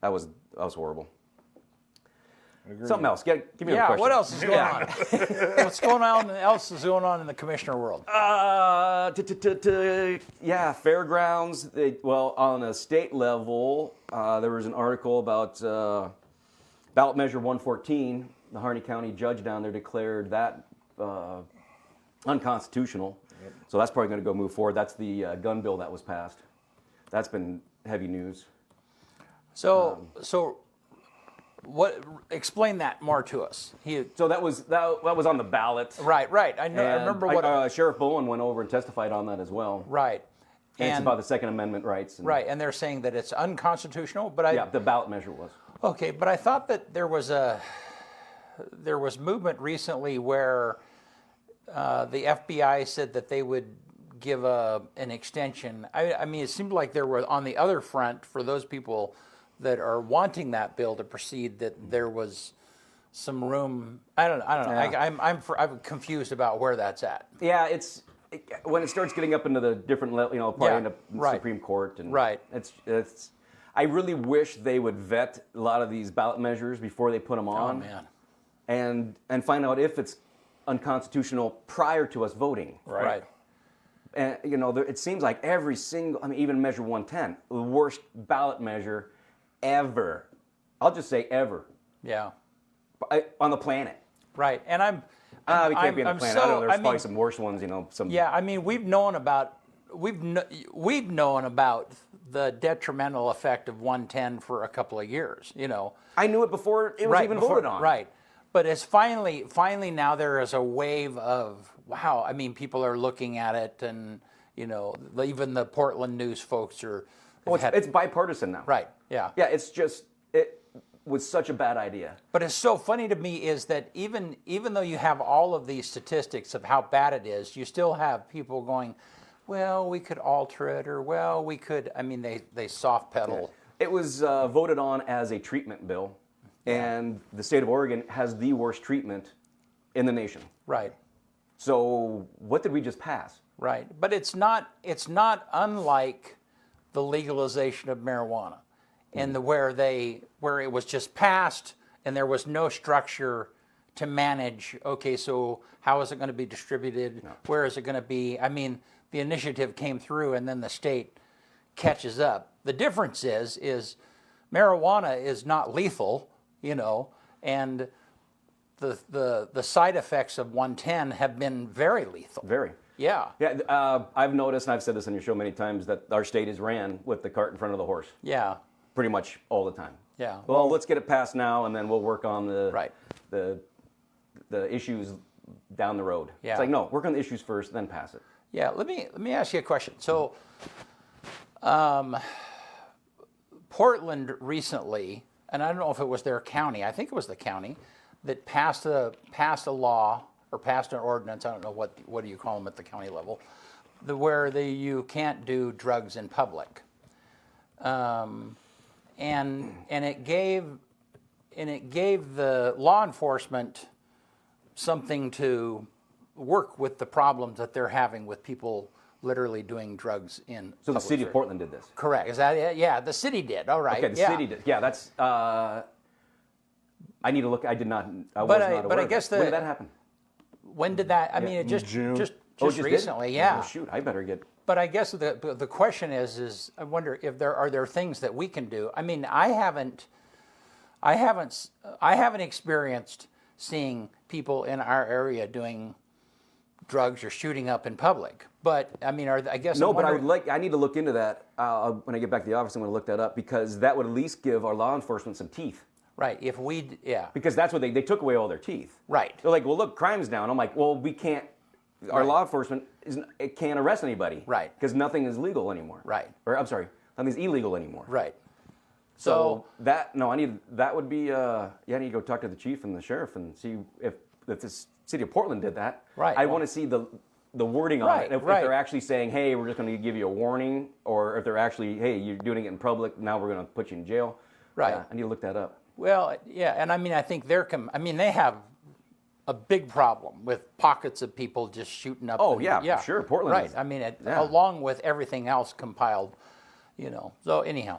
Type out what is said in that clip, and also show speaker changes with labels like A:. A: That was that was horrible.
B: agree.
A: Something else. Get, give me a
C: Yeah,
A: question.
C: what else is going on? What's going on else is going on in the commissioner world?
A: Uh, t- t- t- t- yeah, fairgrounds. They, well, on a state level, uh, there was an article about uh, ballot measure 114. The Harney County judge down there declared that uh, unconstitutional. So that's probably going to go move forward. That's the uh, gun bill that was passed. That's been heavy news.
C: So, so what? Explain that more to us. He,
A: So that was that, that was on the ballot.
C: right, right. I, know, I
A: And
C: remember what.
A: uh, Sheriff Bowen went over and testified on that as well.
C: right,
A: And it's
C: and
A: about the Second Amendment rights. and-
C: right, and they're saying that it's unconstitutional. But I
A: Yeah, the ballot measure was.
C: Okay, but I thought that there was a there was movement recently where uh, the FBI said that they would give a an extension. I, I mean, it seemed like there were on the other front for those people that are wanting that bill to proceed that there was some room. I don't. I don't know.
A: Yeah.
C: I, I'm I'm, fr- I'm confused about where that's at.
A: Yeah, it's it, when it starts getting up into the different, le- you know, probably
C: Yeah,
A: into
C: right.
A: Supreme Court and
C: Right.
A: It's it's. I really wish they would vet a lot of these ballot measures before they put them
C: Oh
A: on,
C: man.
A: and and find out if it's unconstitutional prior to us voting.
C: Right.
A: And you know, there, it seems like every single, I mean, even Measure 110, the worst ballot measure ever. I'll just say ever
C: Yeah.
A: I, on the planet.
C: Right. And I'm.
A: Ah, we can't
C: I'm-
A: be on the
C: I'm
A: planet.
C: so-
A: I know. There's
C: I mean-
A: probably some worse ones. You know, some
C: Yeah, I mean, we've known about we've kn- we've known about the detrimental effect of 110 for a couple of years. You know,
A: I knew it before it was even
C: before-
A: voted on.
C: Right, but it's finally finally now there is a wave of wow. I mean, people are looking at it, and you know, even the Portland news folks are.
A: Well, it's,
C: had-
A: it's bipartisan now.
C: right. Yeah.
A: Yeah, it's just it was such a bad idea.
C: But it's so funny to me is that even even though you have all of these statistics of how bad it is, you still have people going, well, we could alter it, or well, we could. I mean, they they soft pedal.
A: It was uh, voted on as a treatment bill, and the state of Oregon has the worst treatment in the nation.
C: Right,
A: So what did we just pass?
C: right. But it's not it's not unlike the legalization of marijuana, and the where they where it was just passed and there was no structure to manage. Okay, so how is it going to be distributed? Where is it going to be? I mean, the initiative came through, and then the state catches up. The difference is is marijuana is not lethal, you know, and the the the side effects of 110 have been very lethal.
A: Very.
C: Yeah.
A: Yeah, uh, I've noticed, and I've said this on your show many times, that our state is ran with the cart in front of the horse,
C: Yeah.
A: pretty much all the time.
C: Yeah.
A: Well, let's get it passed now, and then we'll work on the
C: Right.
A: the the issues down the road.
C: Yeah.
A: It's like no, work on the issues first, then pass it.
C: Yeah. Let me let me ask you a question. So, um, Portland recently, and I don't know if it was their county. I think it was the county that passed a passed a law or passed an ordinance. I don't know what what do you call them at the county level, the, where the, you can't do drugs in public. Um, and and it gave and it gave the law enforcement something to work with the problems that they're having with people literally doing drugs in.
A: So the
C: public
A: city of
C: ser-
A: Portland did this.
C: Correct. Is that it? Yeah, the city did. All right.
A: Okay, the
C: yeah.
A: city did. Yeah, that's. Uh, I need to look. I did not. I was
C: But
A: not
C: I-
A: aware.
C: but I
A: of
C: guess
A: that. when
C: the-
A: did that happen?
C: When did that? I mean, it just
B: June.
C: just just,
A: Oh, it just did?
C: recently. Yeah.
A: Oh, shoot, I better get.
C: But I guess the but the question is is I wonder if there are there things that we can do. I mean, I haven't, I haven't, s- I haven't experienced seeing people in our area doing drugs or shooting up in public. But I mean, are I guess I'm
A: No, but I would
C: wondering-
A: like. I need to look into that uh, when I get back to the office. I'm going to look that up because that would at least give our law enforcement some teeth.
C: right if we d- yeah
A: Because that's what they they took away all their teeth.
C: Right.
A: They're like, well, look, crime's down. I'm like, well, we can't. Our law enforcement is it can't arrest anybody.
C: Right.
A: Because nothing is legal anymore.
C: Right.
A: Or I'm sorry, nothing's illegal anymore.
C: right.
A: So
C: So,
A: that no, I need that would be uh, yeah, I need to go talk to the chief and the sheriff and see if if the city of Portland did that.
C: Right.
A: I want to see the the wording on
C: Right,
A: it. If, if
C: right.
A: they're actually saying, "Hey, we're just going to give you a warning," or if they're actually, "Hey, you're doing it in public. Now we're going to put you in jail."
C: Right.
A: Yeah, I need to look that up.
C: Well, yeah, and I mean, I think they're. Com- I mean, they have a big problem with pockets of people just shooting up.
A: Oh, yeah, sure, Portland
C: Right.
A: is-
C: I mean, it,
A: yeah.
C: along with everything else compiled, you know. So anyhow,